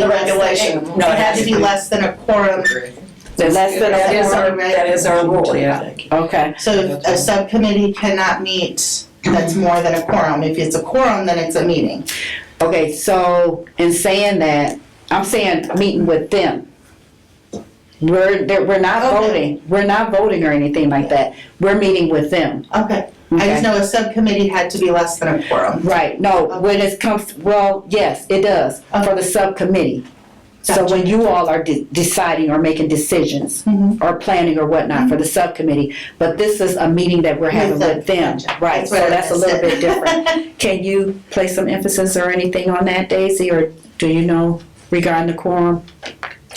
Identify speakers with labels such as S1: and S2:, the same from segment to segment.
S1: the regulation.
S2: No,
S1: It had to be less than a quorum,
S2: Then that's the, that is our, that is our rule, yeah. Okay,
S1: so a subcommittee cannot meet that's more than a quorum. If it's a quorum, then it's a meeting.
S2: okay, so in saying that, I'm saying meeting with them. We're, that, we're not
S1: Okay.
S2: voting, we're not voting or anything like that. We're meeting with them,
S1: Okay, I just
S2: okay?
S1: know a subcommittee had to be less than a quorum.
S2: Right, no, when it comes, well, yes, it does, for the subcommittee. So when you all are de- deciding or making decisions
S1: Mhm.
S2: or planning or whatnot for the subcommittee, but this is a meeting that we're having with them, right?
S1: That's
S2: So
S1: what I
S2: that's a little bit
S1: understood.
S2: different. Can you place some emphasis or anything on that, Daisy, or do you know regarding the quorum?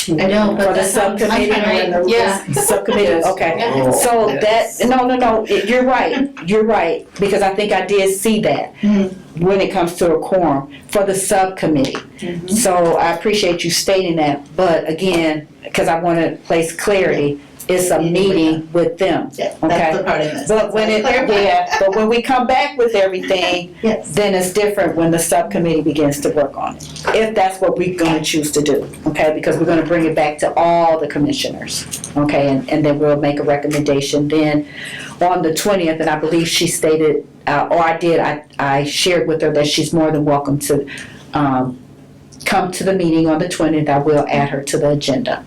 S1: I know, but
S2: For the
S1: that's.
S2: subcommittee,
S1: Right,
S3: Yeah.
S2: Subcommittee, okay.
S4: Oh,
S2: So that,
S4: yes.
S2: no, no, no, it- you're right, you're right, because I think I did see that
S1: Mhm.
S2: when it comes to a quorum for the subcommittee.
S1: Mm-hmm.
S2: So I appreciate you stating that, but again, because I want to place clarity, it's a meeting with them.
S1: Yeah,
S2: Okay.
S1: that's the part of this.
S2: But when it,
S1: Clarify.
S2: yeah, but when we come back with everything,
S1: Yes.
S2: then it's different when the subcommittee begins to work on it. If that's what we're gonna choose to do, okay, because we're gonna bring it back to all the commissioners, okay? And, and then we'll make a recommendation then on the twentieth, and I believe she stated, uh, or I did, I, I shared with her that she's more than welcome to, um, come to the meeting on the twentieth, I will add her to the agenda,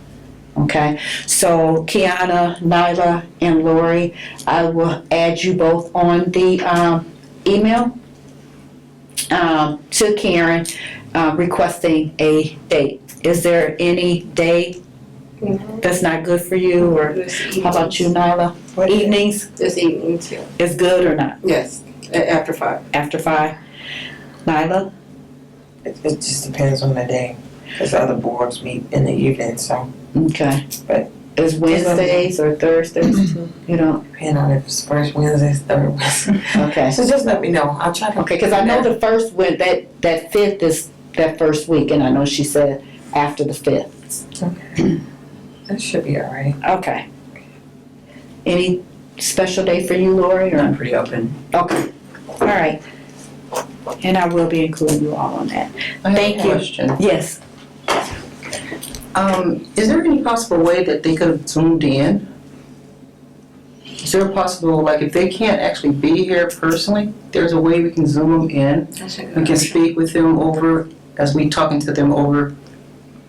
S2: okay? So Kiana, Nyla, and Lori, I will add you both on the, um, email um, to Karen uh, requesting a date. Is there any day that's not good for you, or how about you, Nyla? Evenings
S3: This evening too.
S2: is good or not,
S3: Yes, a- after five.
S2: after five? Nyla?
S5: It, it just depends on the day, because other boards meet in the evening, so
S2: Okay.
S5: Right.
S2: Is Wednesdays or Thursdays? You don't,
S5: depending on if it's first Wednesday, third Wednesday.
S2: okay.
S5: So just let me know, I'll try to.
S2: Okay, because I know the first, one that, that fifth is that first week, and I know she said after the fifth.
S5: That should be all right.
S2: Okay. Any special day for you, Lori, or?
S6: I'm pretty open.
S2: Okay, all right. And I will be including you all on that. Thank you.
S6: Question.
S2: Yes.
S6: Um, is there any possible way that they could have zoomed in? Is there a possible, like, if they can't actually be here personally, there's a way we can zoom them in? We can speak with them over, as we talking to them over,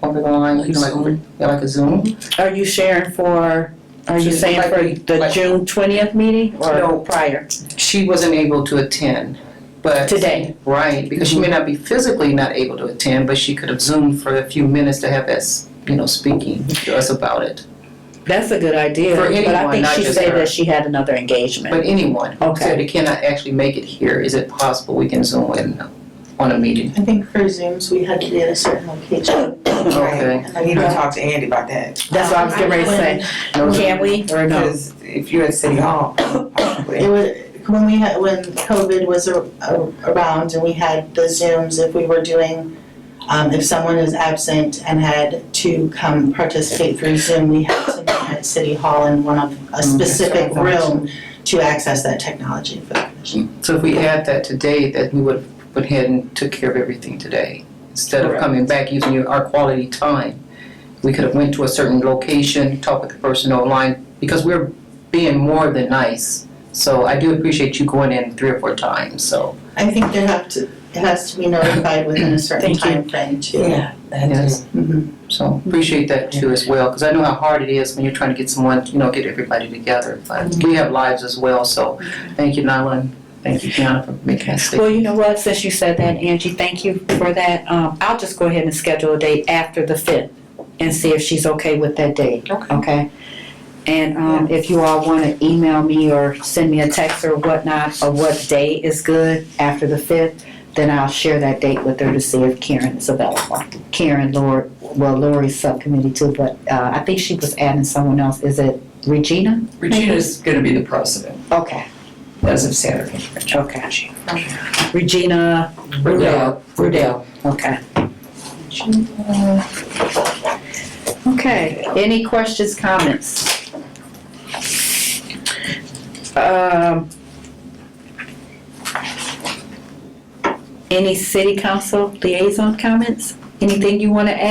S6: over the line, you know, like, over, yeah, like a Zoom?
S2: Are you sharing for, are you
S6: Just
S2: saying
S6: like
S2: for
S6: we-
S2: the
S6: like-
S2: June twentieth meeting
S6: No.
S2: or prior?
S6: She wasn't able to attend, but.
S2: Today.
S6: Right, because she may not be physically not able to attend, but she could have zoomed for a few minutes to have us, you know, speaking to us about it.
S2: That's a good idea,
S6: For
S2: but I
S6: anyone,
S2: think
S6: not
S2: she
S6: just
S2: said
S6: her.
S2: that she had another engagement.
S6: But anyone who
S2: Okay.
S6: said they cannot actually make it here, is it possible we can zoom in on a meeting?
S1: I think for Zooms, we had to be at a certain location.
S6: Okay.
S1: And
S5: I
S1: then
S5: need to
S1: go.
S5: talk to Andy about that,
S2: That's what I was getting ready to
S1: um,
S6: Um,
S2: say. Can we or no?
S5: because if you're at City Hall,
S1: It
S5: probably.
S1: was, when we had, when COVID was a- a- around and we had the Zooms, if we were doing, um, if someone is absent and had to come participate through Zoom, we had to meet at City Hall in one of,
S2: Mm,
S1: a specific room to access that technology for the commission.
S6: So if we add that today, that we would, went ahead and took care of everything today. Instead of
S2: Correct.
S6: coming back using your- our quality time, we could have went to a certain location, talked with the person online, because we're being more than nice. So I do appreciate you going in three or four times, so.
S2: Mm.
S1: I think there have to, it has to be notified within a certain
S2: Thank you.
S1: timeframe too.
S5: Yeah, that
S6: Yes.
S5: is,
S1: Mhm.
S6: Mm-hmm. So appreciate that too as well, because I know how hard it is when you're trying to get someone, you know, get everybody together. But we have lives as well, so thank you, Nyla, and thank you, Kiana, for making that statement.
S2: Well, you know what, since you said that, Angie, thank you for that. Um, I'll just go ahead and schedule a date after the fifth and see if she's okay with that date.
S6: Okay.
S2: Okay. And um, if you all want to email me or send me a text or whatnot, of what day is good after the fifth, then I'll share that date with her to see if Karen is available. Karen, Lori, well, Lori's subcommittee too, but uh, I think she was adding someone else. Is it Regina?
S4: Regina's gonna be the president
S2: Okay,
S4: as of Saturday.
S2: okay. Regina Rudell. Rudell. Okay. Okay, any questions, comments? Um, Any city council liaison comments? Anything you want to add?